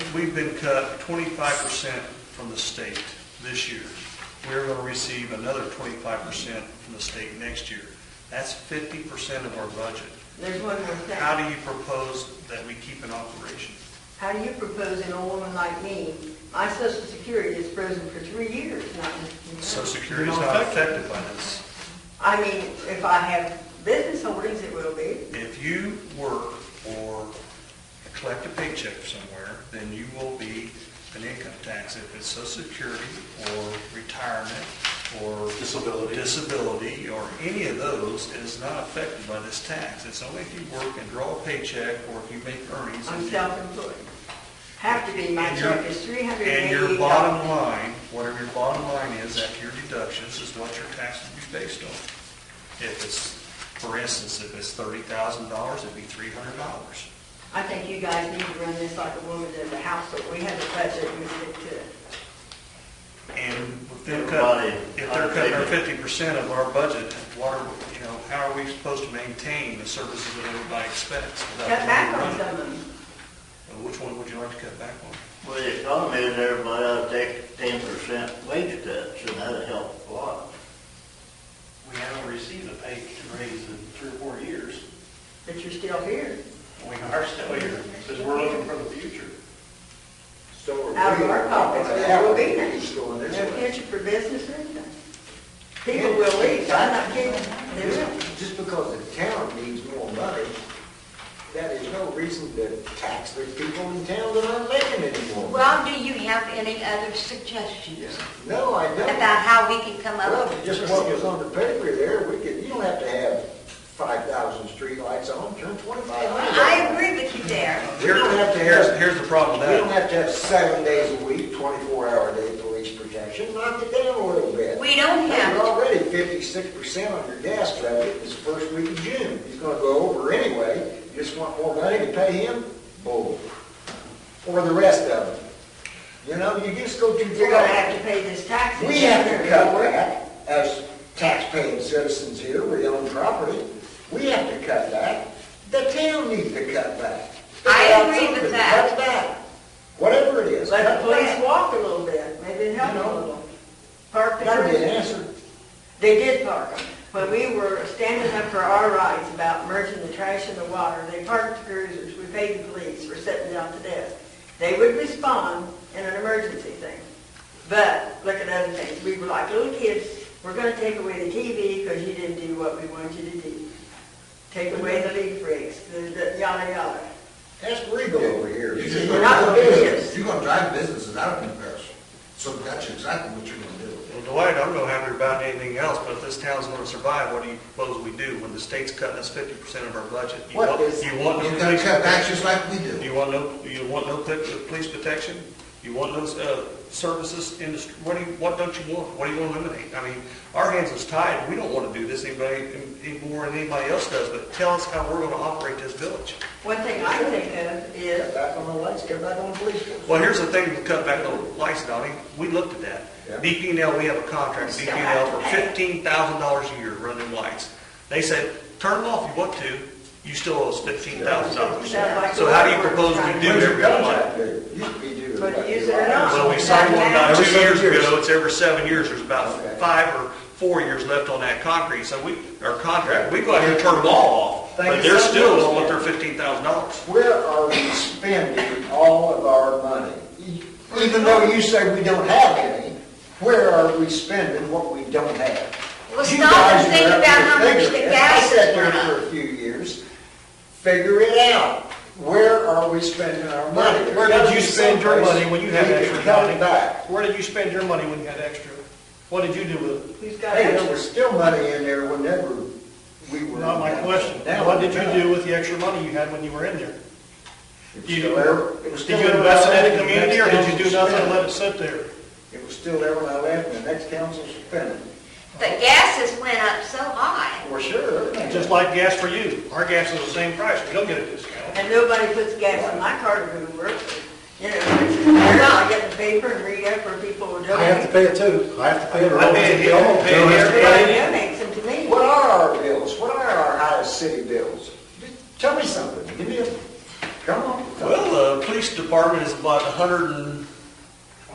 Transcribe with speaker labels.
Speaker 1: we've been cut twenty-five percent from the state this year. We're gonna receive another twenty-five percent from the state next year. That's fifty percent of our budget.
Speaker 2: There's one more thing.
Speaker 1: How do you propose that we keep in operation?
Speaker 2: How do you propose an old woman like me, my social security is frozen for three years, not...
Speaker 1: Social Security's not affected by this.
Speaker 2: I mean, if I have business holdings, it will be.
Speaker 1: If you work or collect a paycheck somewhere, then you will be an income tax. If it's social security or retirement or
Speaker 3: Disability.
Speaker 1: disability or any of those is not affected by this tax. It's only if you work and draw a paycheck or if you make earnings.
Speaker 2: I'm self-employed. Have to be, my
Speaker 1: And your-
Speaker 2: check is three hundred
Speaker 1: And
Speaker 2: and
Speaker 1: your
Speaker 2: eighty
Speaker 1: bottom
Speaker 2: dollars.
Speaker 1: line, whatever your bottom line is after your deductions, is what your tax would be based on. If it's, for instance, if it's thirty thousand dollars, it'd be three hundred dollars.
Speaker 2: I think you guys need to run this like a woman in the household. We have a budget, we stick to it.
Speaker 1: And if they're cutting,
Speaker 3: Everybody,
Speaker 1: if they're cutting our
Speaker 3: I think
Speaker 1: fifty percent of our budget, what are, we- you know, how are we supposed to maintain the services that everybody expects? without
Speaker 2: Cut back on
Speaker 1: running?
Speaker 2: some of them.
Speaker 1: And Which one would you like to cut back on?
Speaker 4: Well, the economy is everybody ought to take ten percent wage cuts, and that'd help a lot.
Speaker 3: We haven't received a pay raise in three or four years.
Speaker 2: but you're still here.
Speaker 3: We are still here, because we're looking for the future.
Speaker 5: So
Speaker 2: Out of our pockets, there will be none.
Speaker 5: Going this
Speaker 2: No
Speaker 5: way.
Speaker 2: future for business or anything. People will leave, I'm not kidding. They will.
Speaker 5: Just just because the town needs more money, that is no reason to tax the people in town that aren't making any more. money.
Speaker 6: Well, do you have any other suggestions
Speaker 5: No, I don't.
Speaker 6: about how we can come up
Speaker 5: Well,
Speaker 6: with?
Speaker 5: just what was on the paper there, we could, you don't have to have five thousand streetlights on, turn twenty-five hundred.
Speaker 6: I agree with you there.
Speaker 5: We don't have to
Speaker 1: Here's,
Speaker 5: have,
Speaker 1: here's the problem
Speaker 5: we
Speaker 1: with that.
Speaker 5: don't have to have seven days a week, twenty-four hour day police protection, knock it down a little bit.
Speaker 6: We don't have
Speaker 5: You're
Speaker 6: to.
Speaker 5: already fifty-six percent on your gas budget this first week of June. He's gonna go over anyway. You just want more money to pay him? Bull. Or the rest of them. You know, you just go too
Speaker 2: You're gonna have
Speaker 5: far.
Speaker 2: to pay this tax.
Speaker 5: We have to cut back as taxpaying citizens here. We own property. We have to cut back. The town needs to cut back.
Speaker 6: I agree with
Speaker 5: Cut
Speaker 6: that.
Speaker 5: back. Whatever it is.
Speaker 2: Let
Speaker 5: cut
Speaker 2: the police
Speaker 5: back.
Speaker 2: walk a little bit, maybe it helps a little. Park the
Speaker 5: That'd be an
Speaker 2: person.
Speaker 5: answer.
Speaker 2: They did park them. When we were standing up for our rights about merging the trash and the water, they parked the cruisers, we paid the police for sitting down to death. They would respond in an emergency thing. But, look at other things, we were like little kids, we're gonna take away the TV because you didn't do what we wanted you to do. Take away the leaf rigs, the, the yada yada.
Speaker 5: Ask Regal over here.
Speaker 2: We're not gonna do this.
Speaker 7: You're gonna drive businesses out of comparison, so that's exactly what you're gonna do.
Speaker 1: Well, Dwight, I'm no happier about anything else, but if this town's gonna survive, what do you propose we do when the state's cutting us fifty percent of our budget? You
Speaker 5: What
Speaker 1: want-
Speaker 5: is-
Speaker 1: You want no
Speaker 7: You're gonna
Speaker 1: police
Speaker 7: cut back
Speaker 1: protection?
Speaker 7: just like we do.
Speaker 1: You want no, you want no pl- police protection? You want no, uh, services industry, what do you, what don't you want? What do you wanna eliminate? I mean, our hands is tied, we don't wanna do this anybody, any more than anybody else does, but tell us how we're gonna operate this village.
Speaker 2: One thing I think of is,
Speaker 5: Cut back on the lights, cut back on the police. force.
Speaker 1: Well, here's the thing, to cut back on lights, Donnie, we looked at
Speaker 5: Yeah.
Speaker 1: that. DPNL, we have a contract,
Speaker 2: Still have
Speaker 1: DPNL
Speaker 2: to
Speaker 1: for
Speaker 2: pay.
Speaker 1: fifteen thousand dollars a year running lights. They said, turn them off if you want to, you still owe us fifteen thousand dollars. So how do you propose we do
Speaker 5: When's your
Speaker 1: every light?
Speaker 5: contract due? Used to be due.
Speaker 2: But
Speaker 5: about
Speaker 2: use it or
Speaker 5: July.
Speaker 2: not.
Speaker 1: Well, we signed one about
Speaker 5: Every
Speaker 1: two
Speaker 5: seven
Speaker 1: years
Speaker 5: years.
Speaker 1: ago, it's every seven years, there's about
Speaker 5: Okay.
Speaker 1: five or four years left on that concrete, so we, our contract, we go out here and turn them all off,
Speaker 5: Thank
Speaker 1: but
Speaker 5: you
Speaker 1: they're
Speaker 5: so
Speaker 1: still
Speaker 5: much.
Speaker 1: owing their fifteen thousand dollars.
Speaker 5: Where are we spending all of our money? Even though you say we don't have any, where are we spending what we don't have?
Speaker 6: Well,
Speaker 5: You
Speaker 6: stop
Speaker 5: guys
Speaker 6: and think
Speaker 5: are up
Speaker 6: about how
Speaker 5: there
Speaker 6: much the
Speaker 5: figuring it.
Speaker 6: gas
Speaker 5: I sat
Speaker 6: is
Speaker 5: there
Speaker 6: going
Speaker 5: for a few years, figure it out. Where are we spending our money?
Speaker 3: Where did you spend your money when you had
Speaker 5: We can
Speaker 3: extra
Speaker 5: cut it
Speaker 3: money?
Speaker 5: back.
Speaker 3: Where did you spend your money when you had extra? What did you do with it?
Speaker 2: Who's got
Speaker 5: Hey,
Speaker 2: it?
Speaker 5: there was still money in there whenever we were.
Speaker 3: Not my question.
Speaker 5: Now,
Speaker 3: What did you do with the extra money you had when you were in there?
Speaker 5: It was
Speaker 3: You-
Speaker 5: still there. It was
Speaker 3: Did you
Speaker 5: still
Speaker 3: invest
Speaker 5: there
Speaker 3: it in the
Speaker 5: when I
Speaker 3: community, or
Speaker 5: left
Speaker 3: did
Speaker 5: and the
Speaker 3: you do
Speaker 5: next
Speaker 3: nothing and
Speaker 5: council
Speaker 3: let it sit there?
Speaker 5: spent it. It was still there when I left and the next council spent it.
Speaker 6: The gases went up so high.
Speaker 5: For sure.
Speaker 3: Just like gas for you. Our gas is the same price. We don't get a discount.
Speaker 2: And nobody puts gas in my car to go to work. You know, you're not getting the paper and read up where people will donate.
Speaker 8: I have to pay it too. I have to pay it. or
Speaker 3: I pay it here,
Speaker 8: else it's
Speaker 3: I pay it here.
Speaker 8: bill.
Speaker 2: Everybody donates them to me.
Speaker 5: What are our bills? What are our highest city bills? Tell me something. Give me a, come on.
Speaker 1: Well, uh, police de- department is about a hundred and